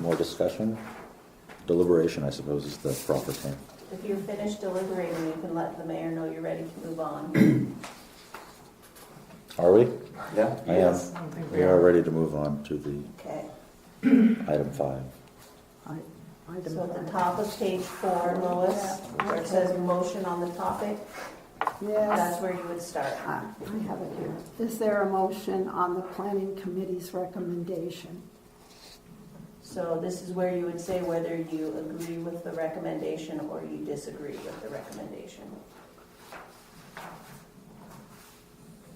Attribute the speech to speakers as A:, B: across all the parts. A: more discussion? Deliberation, I suppose, is the proper term.
B: If you're finished deliberating, you can let the mayor know you're ready to move on.
A: Are we?
C: Yeah?
A: I am. We are ready to move on to the
B: Okay,
A: item five.
D: I- I don't
B: so at the
D: know.
B: top of page four, Lois, where it says motion on the topic, that's
D: Yes,
B: where you would start.
D: I I have it here. Is there a motion on the planning committee's recommendation?
B: So this is where you would say whether you agree with the recommendation or you disagree with the recommendation.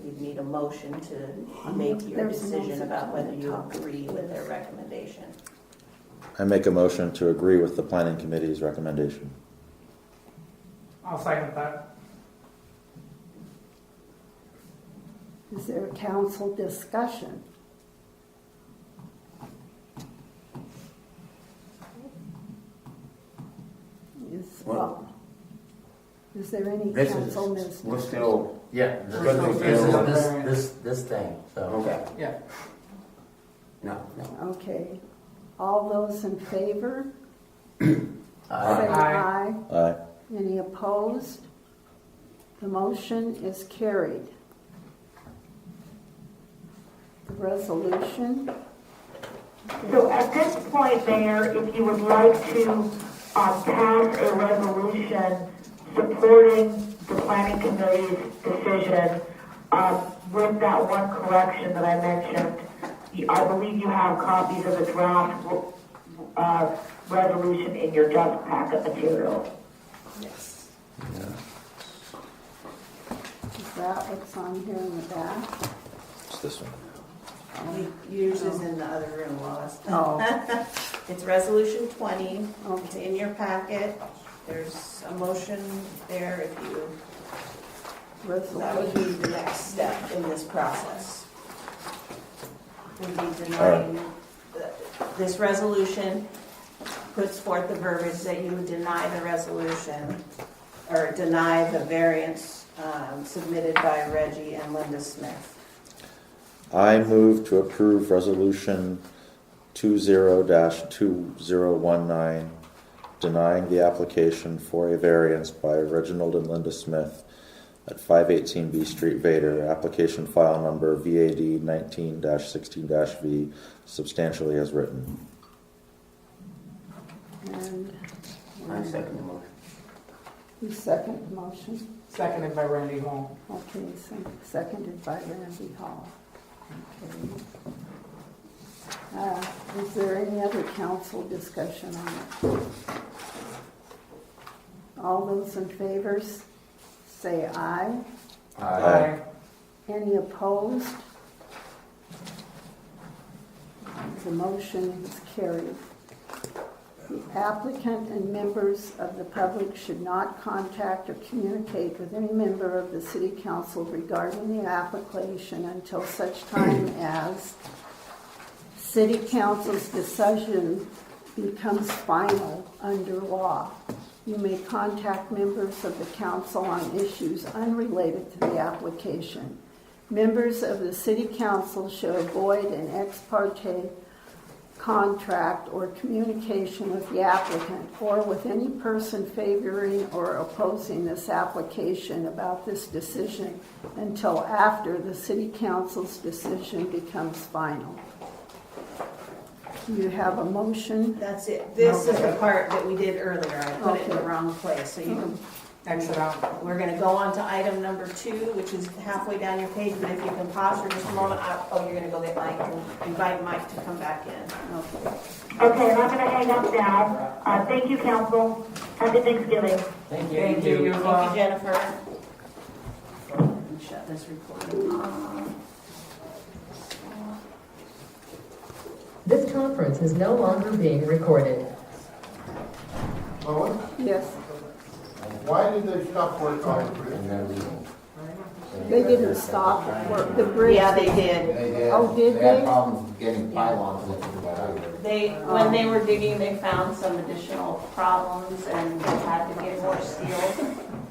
B: You'd need a motion to make your
D: There's a
B: decision
D: motion
B: about whether
D: on the
B: you
D: top.
B: agree with their recommendation.
A: I make a motion to agree with the planning committee's recommendation.
E: I'll second that.
D: Is there a council discussion? Is,
C: Well-
D: well, is there any
F: This
D: council
F: is,
D: business?
F: we're still,
C: Yeah.
F: this,
C: We're still-
E: This is-
F: this, this, this thing, so,
C: Okay,
E: Yeah.
C: no, no.
D: Okay, all those in favor?
F: Aye.
D: Say aye.
A: Aye.
D: Any opposed? The motion is carried. The resolution,
G: So at this point, Mayor, if you would like to uh, pass a resolution supporting the planning committee's decision uh, with that one correction that I mentioned, you- I believe you have copies of the draft uh, resolution in your desk packet material.
B: Yes.
D: is that what's on here in the back?
A: It's this one.
B: Yours is in the other room, Lois.
D: Oh,
B: It's resolution twenty, it's
D: okay,
B: in your packet, there's a motion there if you, that would
D: resolution.
B: be the next step in this process. Would be
A: All
B: denying, the- this resolution puts forth the verbiage that you would deny the resolution, or deny the variance um, submitted by Reggie and Linda Smith.
A: I move to approve resolution two zero dash two zero one nine, denying the application for a variance by Reginald and Linda Smith at five eighteen B Street, Vader, application file number VAD nineteen dash sixteen dash V, substantially as written.
D: And
C: I second the motion.
D: you second the motion?
E: Seconded by Randy Holm.
D: Okay, so seconded by Randy Hall. Okay. Uh, Is there any other council discussion on it? All those in favor, s- say aye.
A: Aye.
D: Any opposed? The motion is carried. The applicant and members of the public should not contact or communicate with any member of the city council regarding the application until such time as city council's decision becomes final under law. You may contact members of the council on issues unrelated to the application. Members of the city council should avoid an ex parte contract or communication with the applicant or with any person favoring or opposing this application about this decision until after the city council's decision becomes final. Do you have a motion?
B: That's it, this is the part that we did earlier, I put it in the wrong place, so you can
E: Exit out.
B: We're gonna go on to item number two, which is halfway down your page, but if you can pause for just a moment, I- oh, you're gonna go get Mike, and invite Mike to come back in.
D: Okay.
G: Okay, and I'm going to hang up now. Uh, Thank you, council. Happy Thanksgiving.
F: Thank you.
E: Thank you, you as
B: Thank you,
E: well.
B: Jennifer. And Shut this recording off.
H: This conference is no longer being recorded.
I: Lois,
D: Yes,
I: why did they stop work on the bridge?
F: And then we-
D: they didn't stop work, the bridge.
B: Yeah, they did.
F: They did.
D: Oh, did
F: had
D: they?
F: problems getting pylons lifted but I would-
B: They, when they were digging, they found some additional problems and they had to get more steel